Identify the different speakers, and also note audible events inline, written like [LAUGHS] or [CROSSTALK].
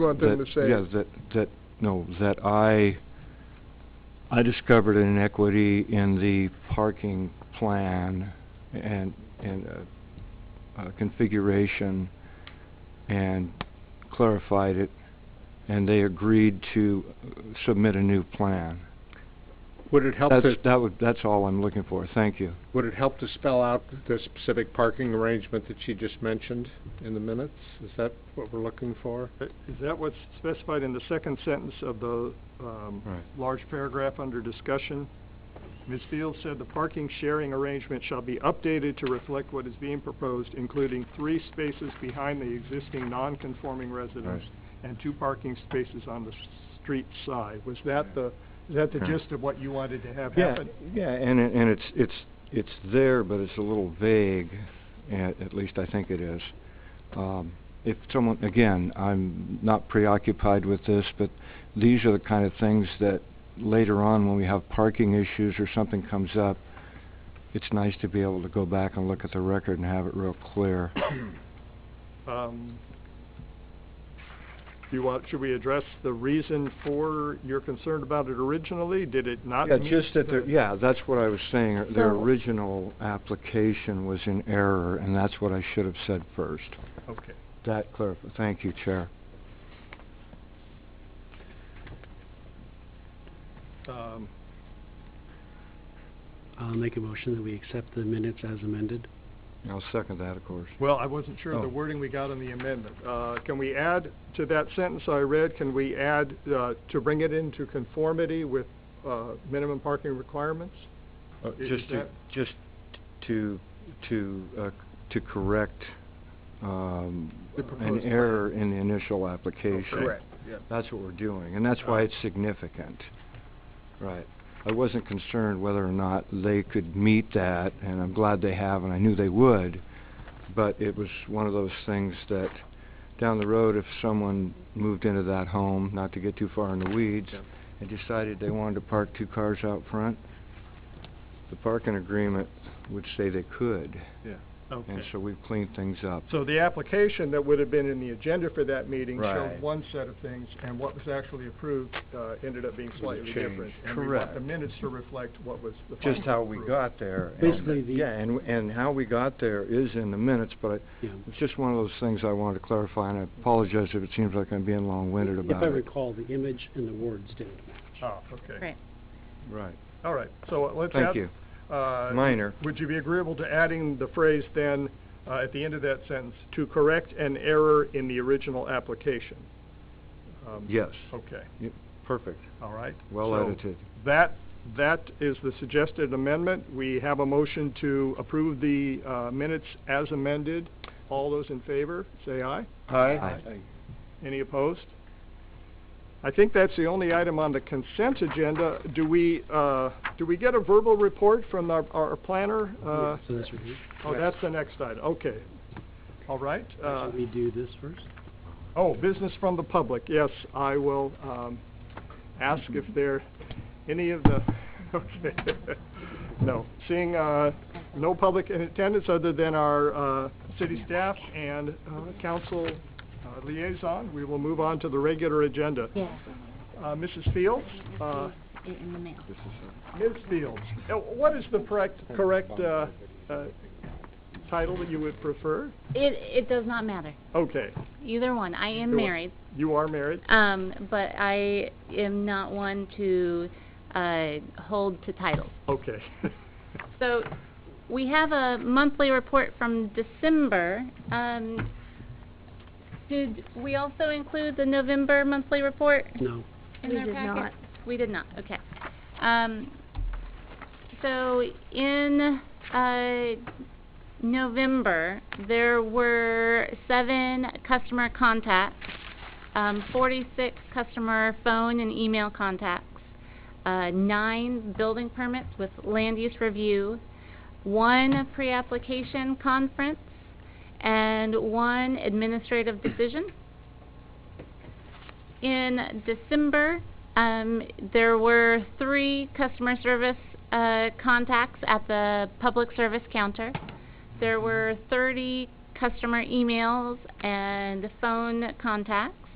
Speaker 1: want them to
Speaker 2: that-
Speaker 1: say.
Speaker 2: Yeah, that, that, no, that I, I discovered an inequity in the parking plan and, and, uh, uh, configuration and clarified it, and they agreed to uh, submit a new plan.
Speaker 1: Would it help
Speaker 2: That's,
Speaker 1: to,
Speaker 2: that would, that's all I'm looking for, thank you.
Speaker 1: would it help to spell out the specific parking arrangement that she just mentioned in the minutes? Is that what we're looking for?
Speaker 3: Uh, Is that what's specified in the second sentence of the, um,
Speaker 2: Right.
Speaker 3: large paragraph under discussion? Ms. Fields said the parking sharing arrangement shall be updated to reflect what is being proposed, including three spaces behind the existing non-conforming residence and two parking spaces on the s- street side. Was that the, is that the
Speaker 2: Yeah.
Speaker 3: gist of what you wanted to have
Speaker 2: Yeah,
Speaker 3: happen?
Speaker 2: yeah, and, it- and it's, it's, it's there, but it's a little vague, at, at least I think it is. Um, if someone, again, I'm not preoccupied with this, but these are the kind of things that later on, when we have parking issues or something comes up, it's nice to be able to go back and look at the record and have it real clear.
Speaker 3: Um, do you want, should we address the reason for your concern about it originally? Did it not
Speaker 2: Yeah,
Speaker 3: meet
Speaker 2: just that their,
Speaker 3: the-
Speaker 2: yeah, that's what I was saying, uh, their
Speaker 4: So-
Speaker 2: original application was in error, and that's what I should have said first.
Speaker 3: Okay.
Speaker 2: That clarif- thank you, Chair.
Speaker 3: Um,
Speaker 5: I'll make a motion that we accept the minutes as amended.
Speaker 2: I'll second that, of course.
Speaker 3: Well, I wasn't sure of the
Speaker 2: Oh.
Speaker 3: wording we got on the amendment. Uh, Can we add to that sentence I read, can we add, uh, to bring it into conformity with uh, minimum parking requirements?
Speaker 2: Uh,
Speaker 3: Is
Speaker 2: Just to,
Speaker 3: that-
Speaker 2: just to, to, uh, c- to correct, um,
Speaker 3: The
Speaker 2: an
Speaker 3: proposed plan.
Speaker 2: error in the initial application.
Speaker 3: Correct, yeah.
Speaker 2: That's what we're doing, and that's why
Speaker 3: Uh,
Speaker 2: it's significant. Right. I wasn't concerned whether or not they could meet that, and I'm glad they have, and I knew they would, but it was one of those things that, down the road, if someone moved into that home, not to get too far in the weeds,
Speaker 3: Yeah.
Speaker 2: and decided they wanted to park two cars out front, the parking agreement would say they could, and
Speaker 3: Okay.
Speaker 2: so we've cleaned things up.
Speaker 3: So the application that would have been in the agenda for that meeting
Speaker 2: Right.
Speaker 3: showed one set of things, and what was actually approved uh, ended up being
Speaker 2: Was a
Speaker 3: slightly
Speaker 2: change.
Speaker 3: different. And we want the
Speaker 2: Correct.
Speaker 3: minutes to reflect what was the final
Speaker 2: Just how we
Speaker 3: approval.
Speaker 2: got there. and-
Speaker 5: Basically, the-
Speaker 2: Yeah, and, and how we got there is in the minutes, but I,
Speaker 5: Yeah.
Speaker 2: It's just one of those things I wanted to clarify, and I apologize if it seems like I'm being long-winded
Speaker 5: If
Speaker 2: about
Speaker 5: I
Speaker 2: it.
Speaker 5: recall, the image and the words didn't match.
Speaker 3: Oh, okay.
Speaker 4: Right.
Speaker 2: Right,
Speaker 3: All right, so uh, let's
Speaker 2: thank
Speaker 3: add-
Speaker 2: you.
Speaker 3: uh,
Speaker 2: Minor.
Speaker 3: Would you be agreeable to adding the phrase then, uh, at the end of that sentence, to correct an error in the original application? Um,
Speaker 2: Yes,
Speaker 3: Okay,
Speaker 2: perfect,
Speaker 3: all right.
Speaker 2: well
Speaker 3: So
Speaker 2: edited.
Speaker 3: That, that is the suggested amendment. We have a motion to approve the uh, minutes as amended. All those in favor, say aye.
Speaker 2: Aye.
Speaker 3: Any opposed? I think that's the only item on the consent agenda. Do we, uh, do we get a verbal report from our our planner? Uh,
Speaker 5: So that's right.
Speaker 3: Oh, that's the next item, okay. All right, uh,
Speaker 5: Should we do this first?
Speaker 3: oh, business from the public, yes, I will, um, ask if there, any of the, [LAUGHS] okay. No, seeing, uh, no public in attendance other than our, uh, city staff and, uh, council uh, liaison, we will move on to the regular agenda.
Speaker 4: Yeah.
Speaker 3: Uh, Mrs. Fields, uh,
Speaker 4: In the mail.
Speaker 2: This is
Speaker 3: Ms. Fields, uh, what is the correct, correct, uh, uh, title that you would prefer?
Speaker 4: It, it does not matter,
Speaker 3: Okay,
Speaker 4: either one. I
Speaker 3: Either
Speaker 4: am
Speaker 3: one.
Speaker 4: married,
Speaker 3: you are married?
Speaker 4: um, but I am not one to, uh, hold to titles.
Speaker 3: Okay. [LAUGHS]
Speaker 4: So, we have a monthly report from December. Um, did we also include the November monthly report?
Speaker 5: No.
Speaker 4: in their packet? We did not. okay. Um, so in, uh, November, there were seven customer contacts, um, forty-six customer phone and email contacts, uh, nine building permits with land use review, one pre-application conference, and one administrative decision. In December, um, there were three customer service, uh, contacts at the public service counter. There were thirty customer emails and phone contacts.